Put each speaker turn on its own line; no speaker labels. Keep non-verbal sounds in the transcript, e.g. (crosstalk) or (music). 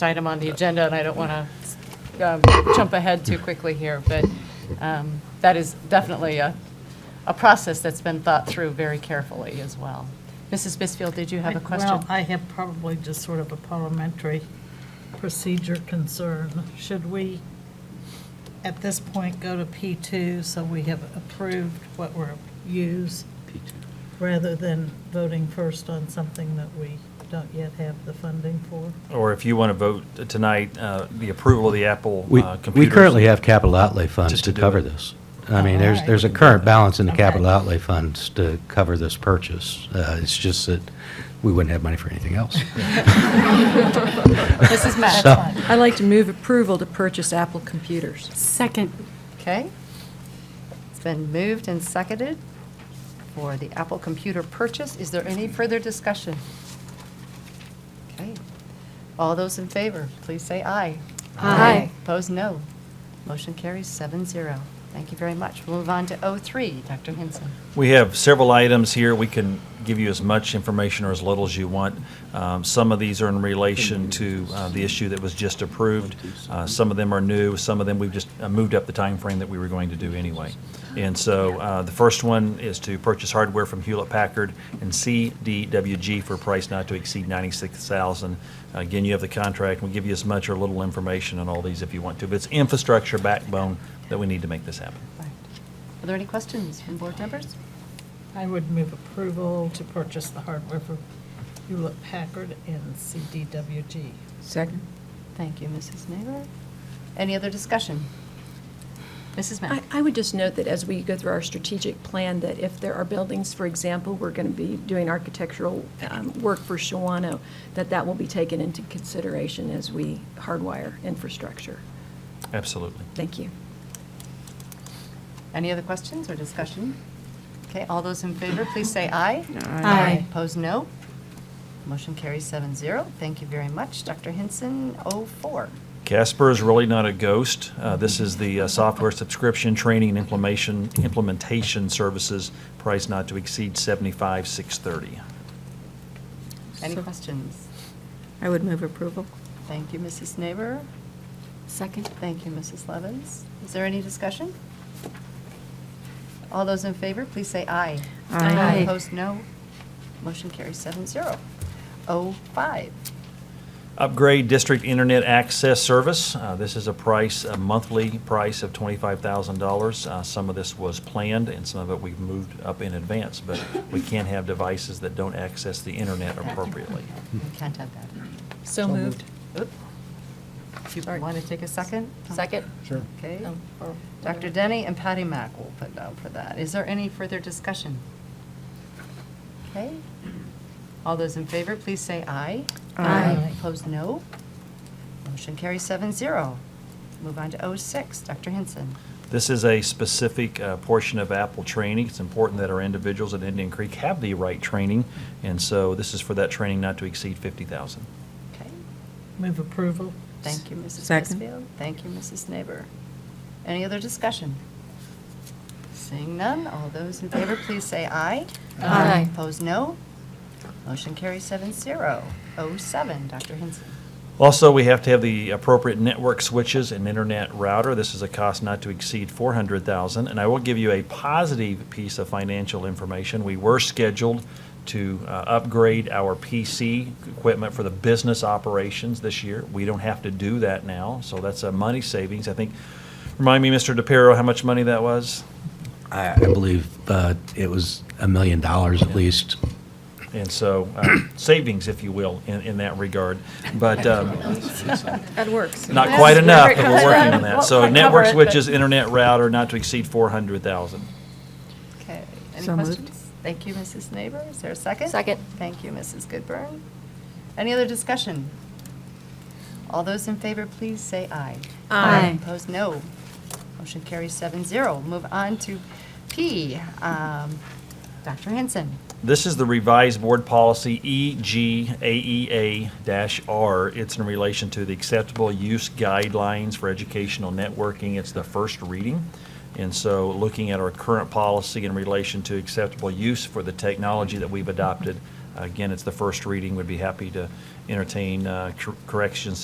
item on the agenda, and I don't want to jump ahead too quickly here, but um, that is definitely a, a process that's been thought through very carefully as well. Mrs. Bisfield, did you have a question?
Well, I have probably just sort of a parliamentary procedure concern. Should we, at this point, go to P2 so we have approved what we're use? Rather than voting first on something that we don't yet have the funding for?
Or if you want to vote tonight, uh, the approval of the Apple
We,
uh,
we
computers.
currently have capital outlay funds
Just
to
to do
cover
it.
this. I mean, there's,
Alright.
there's a current balance in the capital
Okay.
outlay funds to cover this purchase. Uh, It's just that we wouldn't have money for
(laughs)
anything else.
Mrs. Mack?
So-
I'd like to move approval to purchase Apple computers.
Second.
Okay. It's been moved and seconded for the Apple computer purchase. Is there any further discussion? Okay. All those in favor, please say aye.
Aye.
Opposed, no. Motion carries seven zero. Thank you very much. We'll move on to O3. Dr. Hinson.
We have several items here. We can give you as much information or as little as you want. Um, Some of these are in relation to uh, the issue that was just approved. Uh, Some of them are new, some of them we've just uh, moved up the time frame that we were going to do anyway. And so uh, the first one is to purchase hardware from Hewlett-Packard and CDWG for a price not to exceed $96,000. Again, you have the contract. We'll give you as much or little information on all these if you want to. But it's infrastructure backbone that we need to make this happen.
Right. Are there any questions from board members?
I would move approval to purchase the hardware for Hewlett Packard and CDWG.
Second.
Thank you, Mrs. Naylor. Any other discussion? Mrs. Mack?
I I would just note that as we go through our strategic plan, that if there are buildings, for example, we're going to be doing architectural um, work for Shawano, that that will be taken into consideration as we hardwire infrastructure.
Absolutely.
Thank you.
Any other questions or discussion? Okay, all those in favor, please say aye.
Aye.
Opposed, no. Motion carries seven zero. Thank you very much. Dr. Hinson, Oh four.
Casper is really not a ghost. Uh, This is the uh, software subscription, training, and implementation, implementation services, price not to exceed seventy-five, six thirty.
Any
So-
questions?
I would move approval.
Thank you, Mrs. Neighbor.
Second.
Thank you, Mrs. Levens. Is there any discussion? All those in favor, please say aye.
Aye. Aye.
Opposed, no. Motion carries seven zero. Oh five.
Upgrade district internet access service. Uh, This is a price, a monthly price of $25,000. Uh, Some of this was planned, and some of it we've moved up in advance, but we can't have devices that don't access the internet appropriately.
We can't have that.
So moved.
Oop. Uh-huh. Do you want to take a second? Second.
Sure.
Okay.
Oh,
Dr. Denny and Patty Mack will put down for that. Is there any further discussion? Okay. All those in favor, please say aye.
Aye.
Opposed, no. Motion carries seven zero. Move on to 06. Dr. Hinson.
This is a specific uh, portion of Apple training. It's important that our individuals at Indian Creek have the right training, and so this is for that training not to exceed 50,000.
Okay.
Move approval.
Thank you, Mrs.
Second.
Bisfield. Thank you, Mrs. Neighbor. Any other discussion? Seeing none, all those in favor, please say aye.
Aye.
Opposed, no. Motion carries seven zero. Oh seven, Dr. Hinson.
Also, we have to have the appropriate network switches and internet router. This is a cost not to exceed 400,000, and I will give you a positive piece of financial information. We were scheduled to uh, upgrade our PC equipment for the business operations this year. We don't have to do that now, so that's a money savings. I think, remind me, Mr. DePiero, how much money that was?
I I believe uh, it was a million dollars at least.
And so, uh, (coughs) savings, if you will, in, in that regard. But (laughs) um,
That works.
not quite
Yes,
enough,
wherever it comes
but we're working
from.
on that.
Won't
So
quite
network
cover it,
switches,
but-
internet router, not to exceed 400,000.
Okay, any
So moved.
questions? Thank you, Mrs. Neighbor. Is there a second? Second. Thank you, Mrs. Goodburn. Any other discussion? All those in favor, please say aye.
Aye.
Opposed, no. Motion carries seven zero. Move on to P. Um, Dr. Henson.
This is the revised board policy E EGAEA-R. It's in relation to the acceptable use guidelines for educational networking. It's the first reading. And so looking at our current policy in relation to acceptable use for the technology that we've adopted, again, it's the first reading. We'd be happy to entertain uh, cor- corrections